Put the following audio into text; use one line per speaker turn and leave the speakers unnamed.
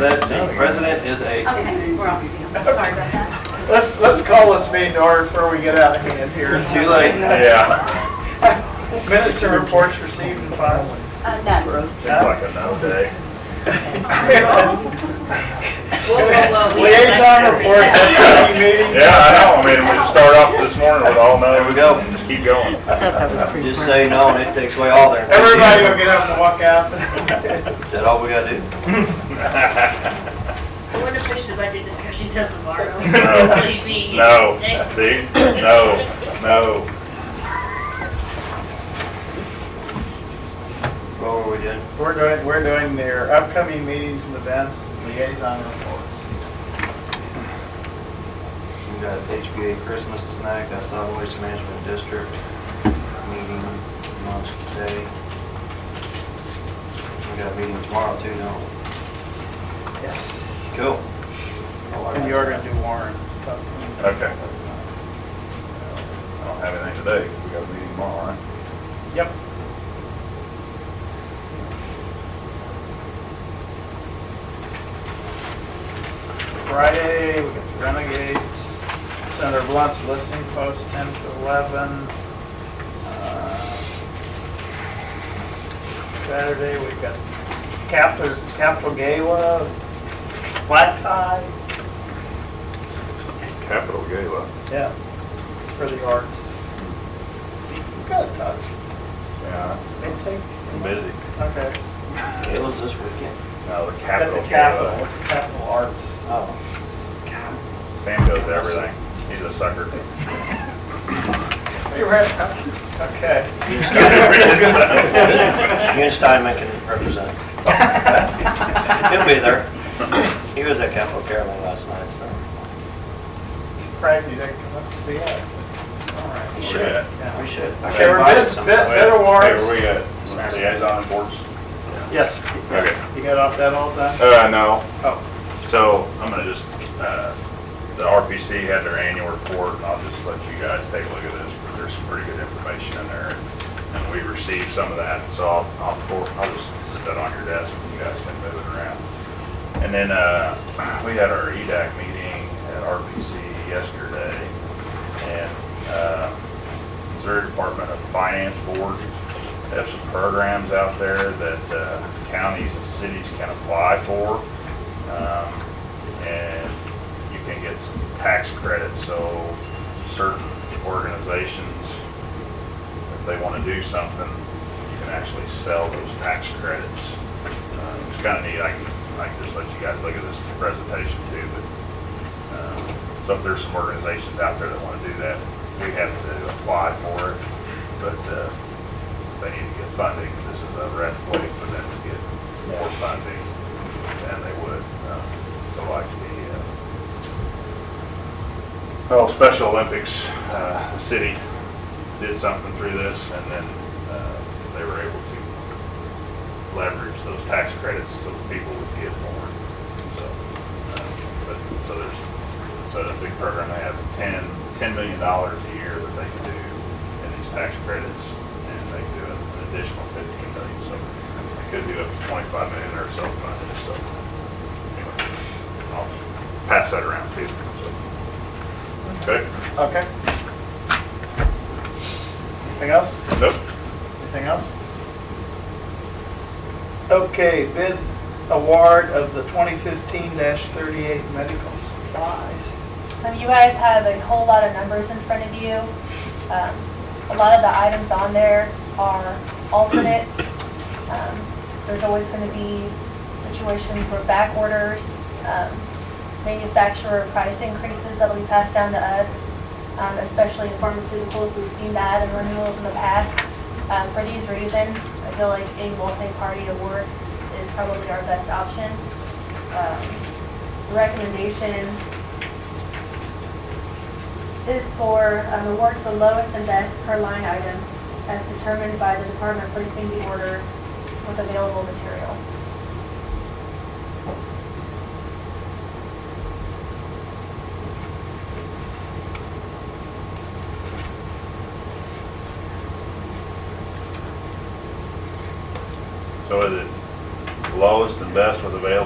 Let's see, president is a,
Okay, we're on scale. Sorry about that.
Let's, let's call this meeting to order before we get out of hand here.
too late.
Yeah.
Minutes and reports received and filed.
Uh, no.
Seems like another day.
Liaison reports, at the meeting.
Yeah, I know, I mean, we just start off this morning with all nine. There we go. Just keep going.
Just say no and it takes away all their.
Everybody will get up and walk out.
Is that all we gotta do?
I want to push the budget discussion till tomorrow.
No.
Leave me.
No,
Next.
see, no, no.
What were we doing?
We're doing, we're doing their upcoming meetings and events, liaison reports.
We got HBA Christmas tonight, got solid waste management district meeting lunch today. We got a meeting tomorrow too, don't we?
Yes.
Cool.
And you are gonna do Warren.
Okay. I don't have anything today, 'cause we got a meeting tomorrow, right?
Yep. Friday, we got the Renegades, Senator Blunt's listening post, 10 to 11. Uh, Saturday, we've got Capitol, Capitol Gala, black tie,
Capital Gala.
yeah, for the arts. You got a touch,
Yeah,
they take.
I'm busy.
Okay.
Gala's this weekend.
No, the
At the
Capital
Capitol,
Gala.
Capitol Arts.
Oh.
Sam goes to everything. He's a sucker.
You read? Okay.
Ian Steinman can represent. He'll be there. He was at Capitol Caravan last night, so
Surprised you didn't come up to see us. All right.
we
Where
should.
you at?
Yeah.
We should. I
Okay, we're
invited
bids, bid,
somebody.
bid
Hey,
awards.
we got liaison boards.
Yes.
Okay.
You got off that all done?
Uh, no,
Oh,
So I'm gonna just, uh, the RPC had their annual report, and I'll just let you guys take a look at this, because there's some pretty good information in there. And we received some of that, so I'll, I'll, for- I'll just sit that on your desk, and you guys can move it around. And then, uh, we had our E EDAC meeting at RPC yesterday, and, uh, Missouri Department of Finance Board, they have some programs out there that, uh, counties and cities can apply for. Um, and you can get some tax credits, so certain organizations, if they want to do something, you can actually sell those tax credits. Uh, It's kind of neat, I can, I can just let you guys look at this presentation too, but, um, so if there's some organizations out there that want to do that, we have to apply for it, but, uh, they need to get funding, this is a red way for them to get more funding than they would, um, so like the, uh, oh, Special Olympics, uh, the city did something through this, and then, uh, they were able to leverage those tax credits so that people would get more, so, uh, but, so there's, so a big program, they have ten, ten million dollars a year that they can do in these tax credits, and they do an additional fifteen million, so they could do up to twenty-five million or so funded, so, anyway, I'll pass that around too, so. Okay,
okay. Anything else?
nope,
Anything else? Okay, bid award of the 2015-38 medical supplies.
Um, you guys have a whole lot of numbers in front of you. Um, a lot of the items on there are alternates. Um, there's always going to be situations where back orders, um, manufacturer price increases that'll be passed down to us, um, especially in pharmaceuticals. We've seen that in renewals in the past. Um, for these reasons, I feel like a multi-party award is probably our best option. Um, recommendation is for um, award to the lowest and best per line item as determined by the department placing the order with available material.
so is it lowest and best with available